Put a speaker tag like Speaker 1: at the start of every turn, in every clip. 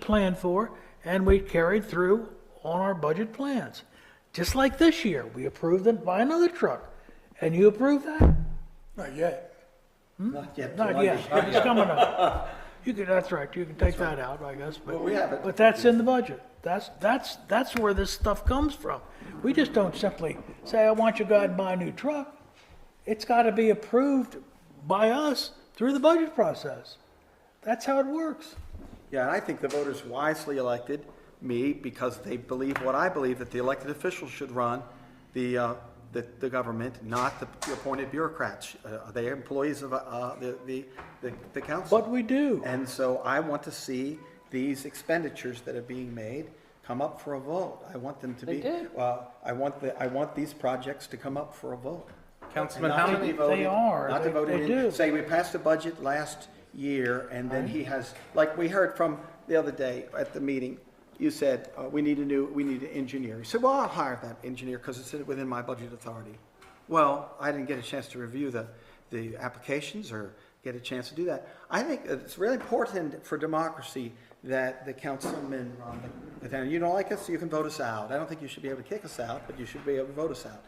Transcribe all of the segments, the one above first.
Speaker 1: planned for, and we carried through on our budget plans. Just like this year, we approved them buy another truck, and you approved that?
Speaker 2: Not yet.
Speaker 3: Not yet.
Speaker 1: Not
Speaker 3: July
Speaker 1: yet,
Speaker 3: is-
Speaker 1: it's coming up. You can, that's right, you can take that out, I guess, but.
Speaker 3: Well, we have it.
Speaker 1: But that's in the budget. That's, that's, that's where this stuff comes from. We just don't simply say, I want you to go out and buy a new truck. It's gotta be approved by us through the budget process. That's how it works.
Speaker 3: Yeah, and I think the voters wisely elected me because they believe what I believe, that the elected officials should run the, uh, the, the government, not the appointed bureaucrats. Uh, They are employees of, uh, the, the, the- the council.
Speaker 1: But we do.
Speaker 3: And so I want to see these expenditures that are being made come up for a vote. I want them to be. Well, I want the, I want these projects to come up for a vote.
Speaker 4: Councilman,
Speaker 3: And not
Speaker 4: how
Speaker 3: to be
Speaker 4: many-
Speaker 3: voted-
Speaker 1: They are.
Speaker 3: Not to
Speaker 1: They-
Speaker 3: vote
Speaker 1: they
Speaker 3: it
Speaker 1: do.
Speaker 3: in, say, we passed a budget last year, and then he has, like we heard from the other day at the meeting, you said, uh, we need a new, we need an engineer. He said, well, I'll hire that engineer because it's within my budget authority. Well, I didn't get a chance to review the, the applications or get a chance to do that. I think it's really important for democracy that the councilmen run the town. You don't like us, you can vote us out. I don't think you should be able to kick us out, but you should be able to vote us out.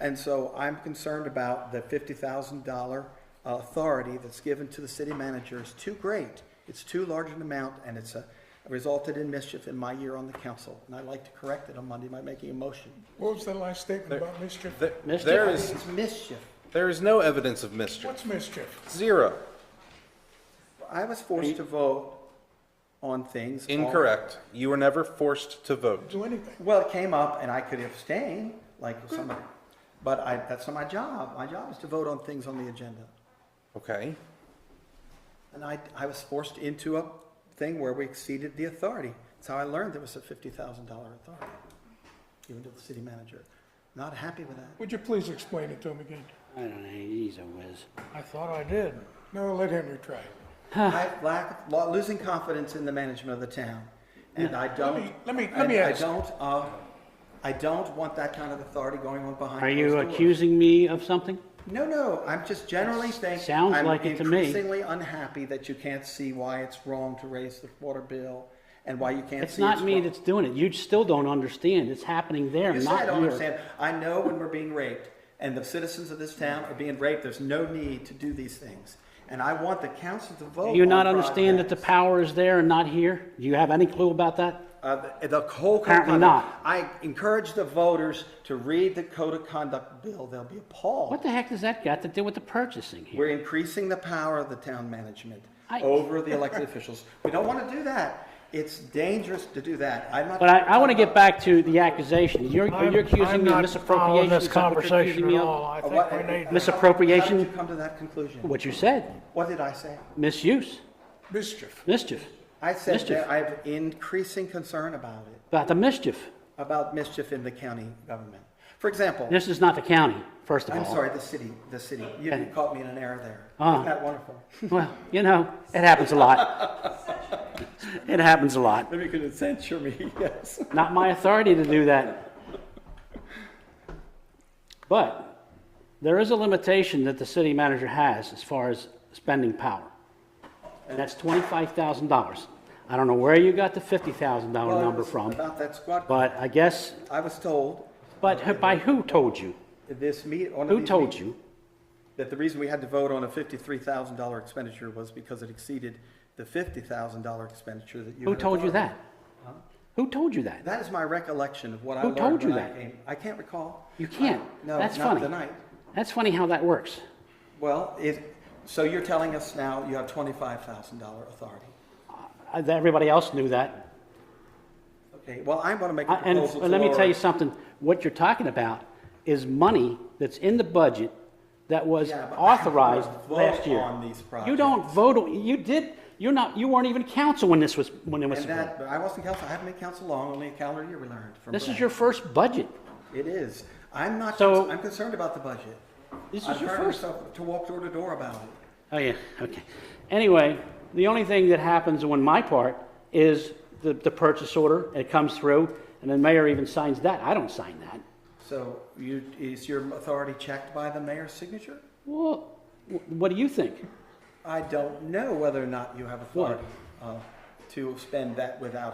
Speaker 3: And so I'm concerned about the fifty thousand dollar authority that's given to the city manager is too great. It's too large an amount, and it's uh, resulted in mischief in my year on the council. And I'd like to correct it on Monday by making a motion.
Speaker 2: What was that last statement about mischief?
Speaker 4: Th-
Speaker 3: Mischief,
Speaker 4: There
Speaker 3: I
Speaker 4: is,
Speaker 3: think it's mischief.
Speaker 4: there is no evidence of mischief.
Speaker 2: What's mischief?
Speaker 4: Zero.
Speaker 3: I was forced to vote on things. on-
Speaker 4: Incorrect. You were never forced to vote.
Speaker 2: Do anything.
Speaker 3: Well, it came up and I could abstain, like somebody, but I, that's not my job. My job is to vote on things on the agenda.
Speaker 4: Okay.
Speaker 3: And I, I was forced into a thing where we exceeded the authority. That's how I learned there was a fifty thousand dollar authority, even to the city manager. Not happy with that.
Speaker 2: Would you please explain it to him again?
Speaker 5: I don't know, he's a whiz.
Speaker 1: I thought I did.
Speaker 2: No, let Henry try.
Speaker 3: I have lack, lo- losing confidence in the management of the town. And I don't.
Speaker 2: me- let me- let me
Speaker 3: and
Speaker 2: ask.
Speaker 3: I don't, uh, I don't want that kind of authority going on behind
Speaker 5: Are
Speaker 3: closed
Speaker 5: you
Speaker 3: doors.
Speaker 5: accusing me of something?
Speaker 3: No, no, I'm just generally saying.
Speaker 5: sounds like it to me.
Speaker 3: I'm increasingly unhappy that you can't see why it's wrong to raise the water bill and why you can't see.
Speaker 5: It's not me
Speaker 3: wrong.
Speaker 5: that's doing it. You still don't understand. It's happening there,
Speaker 3: You say I
Speaker 5: not
Speaker 3: don't
Speaker 5: here.
Speaker 3: understand. I know when we're being raped and the citizens of this town are being raped, there's no need to do these things. And I want the council to vote.
Speaker 5: Do you
Speaker 3: on
Speaker 5: not understand that the
Speaker 3: projects.
Speaker 5: power is there and not here? Do you have any clue about that?
Speaker 3: Uh, the- the whole. code of
Speaker 5: Apparently
Speaker 3: conduct.
Speaker 5: not.
Speaker 3: I encourage the voters to read the code of conduct bill. They'll be appalled.
Speaker 5: What the heck does that got to do with the purchasing here?
Speaker 3: We're increasing the power of the town management
Speaker 5: I-
Speaker 3: over the elected officials. We don't want to do that. It's dangerous to do that. I'm not.
Speaker 5: But I, I want to get back to the accusation. You're, you're accusing me of
Speaker 1: I'm not following
Speaker 5: misappropriation.
Speaker 1: this
Speaker 5: Is that what you're accusing
Speaker 1: conversation
Speaker 5: me
Speaker 1: at
Speaker 5: of?
Speaker 1: all. I
Speaker 3: Uh,
Speaker 1: think
Speaker 3: what-
Speaker 1: we need.
Speaker 5: Misappropriation?
Speaker 3: How did you come to that conclusion?
Speaker 5: What you said,
Speaker 3: What did I say?
Speaker 5: misuse,
Speaker 2: Mischief.
Speaker 5: mischief,
Speaker 3: I said
Speaker 5: Mischief.
Speaker 3: that I have increasing concern about it,
Speaker 5: about the mischief.
Speaker 3: about mischief in the county government. For example,
Speaker 5: This is not the county, first of all.
Speaker 3: I'm sorry, the city, the city. You you caught me in an error there.
Speaker 5: Ah.
Speaker 3: Isn't that wonderful?
Speaker 5: Well, you know, it happens a lot. It happens a lot.
Speaker 3: Maybe you could censure me, yes.
Speaker 5: Not my authority to do that. But there is a limitation that the city manager has as far as spending power. And that's $25,000. I don't know where you got the $50,000
Speaker 3: Well, it
Speaker 5: number
Speaker 3: was
Speaker 5: from,
Speaker 3: About that squad.
Speaker 5: but I guess,
Speaker 3: I was told
Speaker 5: but who- by who told you?
Speaker 3: at this meet, on
Speaker 5: Who told you?
Speaker 3: that the reason we had to vote on a fifty-three thousand dollar expenditure was because it exceeded the fifty thousand dollar expenditure that you.
Speaker 5: Who
Speaker 3: had
Speaker 5: told you
Speaker 3: authority.
Speaker 5: that? Who told you that?
Speaker 3: That is my recollection of what I
Speaker 5: Who
Speaker 3: learned
Speaker 5: told you
Speaker 3: when I
Speaker 5: that?
Speaker 3: came. I can't recall.
Speaker 5: You can't.
Speaker 3: I- No,
Speaker 5: That's
Speaker 3: not
Speaker 5: funny.
Speaker 3: tonight.
Speaker 5: That's funny how that works.
Speaker 3: Well, it, so you're telling us now you have twenty-five thousand dollar authority.
Speaker 5: I- Everybody else knew that.
Speaker 3: Okay, well, I'm gonna make a
Speaker 5: I- And
Speaker 3: proposal to
Speaker 5: let me tell
Speaker 3: lower-
Speaker 5: you something, what you're talking about is money that's in the budget that was
Speaker 3: Yeah, but I
Speaker 5: authorized
Speaker 3: don't vote
Speaker 5: last year.
Speaker 3: on these
Speaker 5: You don't
Speaker 3: projects.
Speaker 5: vote, on- you did, you're not, you weren't even council when this was, when it was.
Speaker 3: And that, but I wasn't council, I haven't been council long, only a calendar year we learned from.
Speaker 5: This is
Speaker 3: Brad.
Speaker 5: your first budget.
Speaker 3: It is. I'm not,
Speaker 5: So-
Speaker 3: I'm concerned about the budget.
Speaker 5: This
Speaker 3: I'm
Speaker 5: is your
Speaker 3: turning
Speaker 5: first.
Speaker 3: myself To walk door to door about it.
Speaker 5: Oh, yeah, okay. Anyway, the only thing that happens on my part is the, the purchase order, it comes through, and the mayor even signs that. I don't sign that.
Speaker 3: So you, is your authority checked by the mayor's signature?
Speaker 5: Well, wh- what do you think?
Speaker 3: I don't know whether or not you have authority uh, to spend that without